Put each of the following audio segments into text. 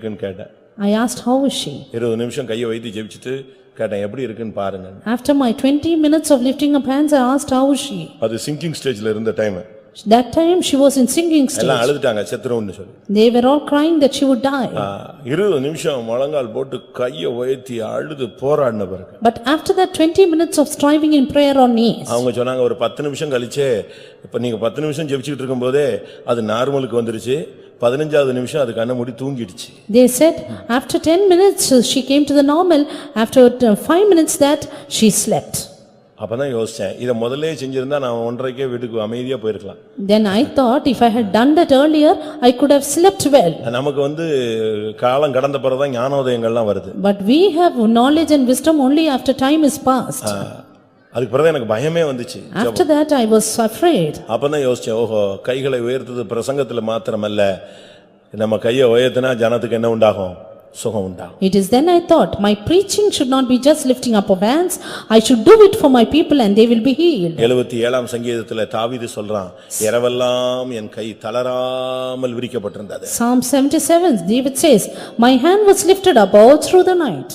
இருக்குன்னு கேட்டேன் I asked, How is she? இருபது நிமிஷம் கையை வைத்து ஜெபிச்சுட்டு கேட்டேன் எப்படி இருக்குன்னு பாருங்க After my twenty minutes of lifting up hands, I asked, How is she? அது சிங்கிங் ஸ்டேஜ்ல இருந்த time That time she was in singing stage. எல்லாம் அழுதுட்டாங்க செத்துருவோம்னு சொல்லி They were all crying that she would die. ஆ, இருபது நிமிஷம் முழங்கால் போட்டு கையை உயர்த்தி அழுது போராடின பிறகு But after that twenty minutes of striving in prayer on knees, அவங்க சொன்னாங்க ஒரு பத்து நிமிஷம் கழிச்சே இப்ப நீங்க பத்து நிமிஷம் ஜெபிச்சுட்டு இருக்கும்போதே அது நார்மலுக்கு வந்துருச்சு பதினஞ்சாவது நிமிஷம் அது கண்ணை மூடி தூங்கிடுச்சு they said, After ten minutes, uh, she came to the normal. After uh, five minutes that, she slept. அப்பதான் யோசிச்சேன் இதை முதல்ல செஞ்சிருந்தா நான் ஒன்றரைக்கே வீட்டுக்கு அமைதியா போயிருக்கலாம் Then I thought, if I had done that earlier, I could have slept well. நமக்கு வந்து காலம் கடந்த பிறகுதான் ஞானோதயங்கள்லாம் வருது But we have knowledge and wisdom only after time is past. ஆ, அதுக்கு பிறகு எனக்கு பயமே வந்துச்சு After that, I was afraid. அப்பதான் யோசிச்சேன் ஓஹோ கைகளை உயர்த்தது பிரசங்கத்துல மாத்திரமல்ல நம்ம கையை உயர்த்தினா ஜனத்துக்கு என்ன உண்டாகும் சுகம் உண்டாகும் It is then I thought, my preaching should not be just lifting up of hands, I should do it for my people and they will be healed. எழுபத்தி ஏழாம் சங்கீதத்துல தாவீது சொல்றான் இரவெல்லாம் என் கை தளராமல் விரிக்கப்பட்டிருந்தது Psalm seventy-seven, David says, "My hand was lifted up all through the night.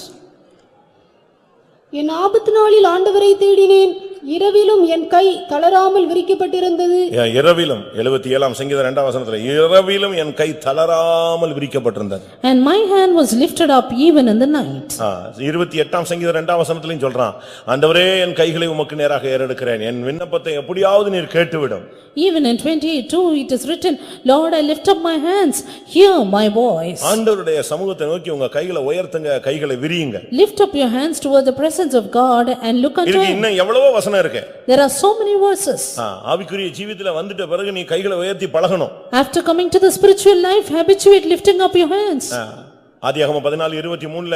என் ஆபத்து நாளில் ஆண்டவரை தேடினேன் இரவிலும் என் கை தளராமல் விரிக்கப்பட்டிருந்தது என் இரவிலும் எழுபத்தி ஏழாம் சங்கீதம் இரண்டாம் வசனத்துல இரவிலும் என் கை தளராமல் விரிக்கப்பட்டிருந்தது And my hand was lifted up even in the night." ஆ, இருபத்தி எட்டாம் சங்கீதம் இரண்டாம் வசனத்திலையும் சொல்றான் ஆண்டவரே என் கைகளை உமக்கு நேராக ஏறெடுக்கிறேன் என் விண்ணப்பத்தை எப்படியாவது நீர் கேட்டுவிடும் Even in twenty-two, it is written, "Lord, I lift up my hands, hear my voice." ஆண்டவருடைய சமூகத்தை நோக்கி உங்க கைகளை உயர்த்துங்க கைகளை விரியுங்க Lift up your hands toward the presence of God and look unto இதுக்கு him. இன்னும் எவ்வளவோ வசனம் இருக்கு There are so many verses. ஆ, ஆவிக்குரிய ஜீவித்துல வந்துட்ட பிறகு நீ கைகளை உயர்த்தி பழகணும் After coming to the spiritual life, habituate lifting up your hands. ஆ, ஆதியாகமம் பதினாலு இருபத்தி மூணுல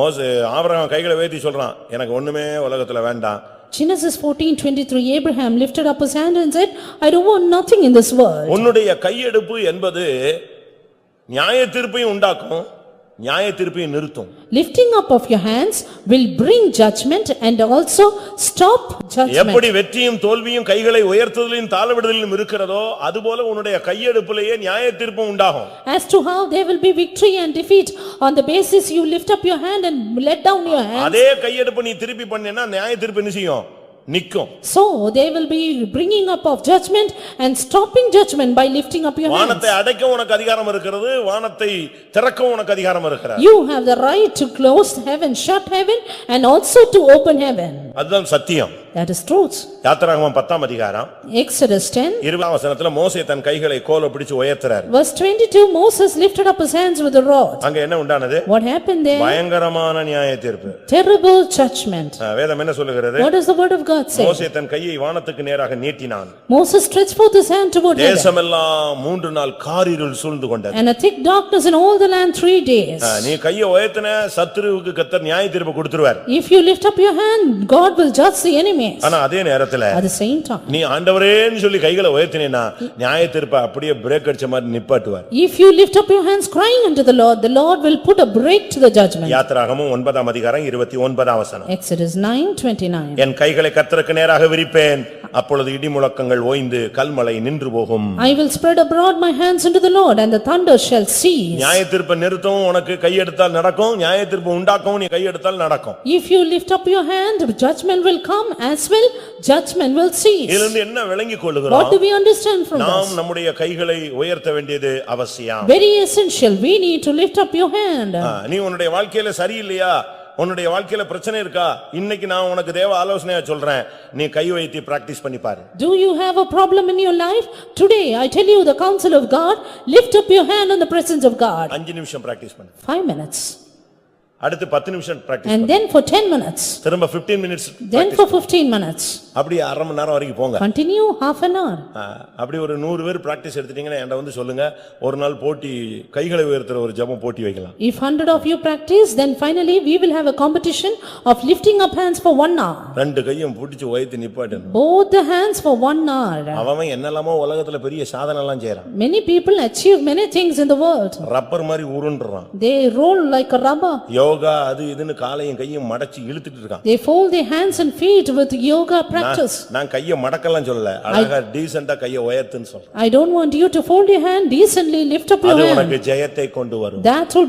மோச ஆபிரகாம் கைகளை உயர்த்தி சொல்றான் எனக்கு ஒண்ணுமே உலகத்துல வேண்டாம் Genesis fourteen twenty-three, Abraham lifted up his hand and said, "I don't want nothing in this world." உன்னுடைய கையெடுப்பு என்பது நியாய தீர்ப்பையும் உண்டாக்கும் நியாய தீர்ப்பையும் நிறுத்தும் Lifting up of your hands will bring judgment and also stop judgment. எப்படி வெற்றியும் தோல்வியும் கைகளை உயர்த்துதலையும் தாழ்விடுதலிலும் இருக்கிறதோ அதுபோல உன்னுடைய கையெடுப்பிலேயே நியாய தீர்ப்பும் உண்டாகும் As to how there will be victory and defeat, on the basis you lift up your hand and let down your hand, அதே கையெடுப்பு நீ திருப்பி பண்ணேன்னா நியாய தீர்ப்பு என்ன செய்யும் நிக்கும் so they will be bringing up of judgment and stopping judgment by lifting up your hand. வானத்தை அடைக்க உனக்கு அதிகாரம் இருக்கிறது வானத்தை திறக்க உனக்கு அதிகாரம் இருக்கிறது You have the right to close heaven, shut heaven and also to open heaven. அதுதான் சத்தியம் That is truth. யாத்திராகமம் பத்தாம் அதிகாரம் Exodus ten, இருபதாம் வசனத்துல மோசே தன் கைகளை கோல பிடிச்சு உயர்த்துறாரு verse twenty-two, Moses lifted up his hands with a rod. அங்க என்ன உண்டானது What happened there? பயங்கரமான நியாய தீர்ப்பு Terrible judgment. ஆ, வேதம் என்ன சொல்லுகிறது What does the word of God say? மோசே தன் கையை வானத்துக்கு நேராக நீட்டினான் Moses stretched forth his hand toward heaven, தேசமெல்லாம் மூன்று நாள் காரிருள் சூழ்ந்து கொண்டது and a thick darkness in all the land three days. ஆ, நீ கையை உயர்த்தின சத்துருவுக்கு கத்தர் நியாய தீர்ப்பு கொடுத்துருவார் If you lift up your hand, God will judge the enemies. ஆனா அதே நேரத்துல At the same time, நீ ஆண்டவரேன்னு சொல்லி கைகளை உயர்த்தினேன்னா நியாய தீர்ப்பை அப்படியே பிரேக் அடிச்ச மாதிரி நிப்பாட்டுவார் if you lift up your hands crying unto the Lord, the Lord will put a break to the judgment. யாத்திராகமும் ஒன்பதாம் அதிகாரம் இருபத்தி ஒன்பதாம் வசனம் Exodus nine twenty-nine. என் கைகளை கத்தருக்கு நேராக விரிப்பேன் அப்பொழுது இடி முழக்கங்கள் ஓய்ந்து கல்மலை நின்று போகும் I will spread abroad my hands unto the Lord, and the thunder shall cease. நியாய தீர்ப்பை நிறுத்தவும் உனக்கு கையெடுத்தால் நடக்கும் நியாய தீர்ப்பு உண்டாக்கவும் நீ கையெடுத்தால் நடக்கும் If you lift up your hand, judgment will come as well, judgment will இதுல cease. இருந்து என்ன விளங்கிக் கொள்ளுகிறோம் What do we understand from நாம் this? நம்முடைய கைகளை உயர்த்த வேண்டியது அவசியம் Very essential, we need to lift up your hand. ஆ, நீ உன்னுடைய வாழ்க்கையில சரியில்லையா உன்னுடைய வாழ்க்கையில பிரச்சனை இருக்கா இன்னைக்கு நான் உனக்கு தேவ ஆலோசனையா சொல்றேன் நீ கை வைத்து பிராக்டிஸ் பண்ணி பாரு Do you have a problem in your life? Today, I tell you the counsel of God, lift up your hand in the presence of God. அஞ்சு நிமிஷம் பிராக்டிஸ் பண்ணு Five minutes, அடுத்து பத்து நிமிஷம் practice and then for ten minutes, திரும்ப 15 minutes then for fifteen minutes. அப்படி அரை மணி நேரம் வரைக்கும் போங்க Continue half an hour. ஆ, அப்படி ஒரு நூறு பேர் பிராக்டிஸ் எடுத்துட்டீங்கன்னா என்கிட்ட வந்து சொல்லுங்க ஒரு நாள் போட்டி கைகளை உயர்த்துற ஒரு ஜெபம் போட்டி வைக்கலாம் If hundred of you practice, then finally we will have a competition of lifting up hands for one hour. ரெண்டு கையும் பிடிச்சு உயர்த்தி நிப்பாட்டணும் Both the hands for one hour. அவன் அவன் என்னெல்லாமோ உலகத்துல பெரிய சாதனை எல்லாம் செய்யறான் Many people achieve many things in the world. Rubber மாதிரி உருண்டுறான் They roll like a rubber. Yoga அது இதுன்னு காலையும் கையும் மடச்சு இழுத்துட்டு இருக்கான் They fold their hands and feet with yoga practice. நான் கையை மடக்கலாம் சொல்லல அழகா டீசெண்டா கையை உயர்த்துன்னு சொல்றேன் I don't want you to fold your hand decently, lift up your அது hand. உனக்கு ஜெயத்தை கொண்டு வரும் That will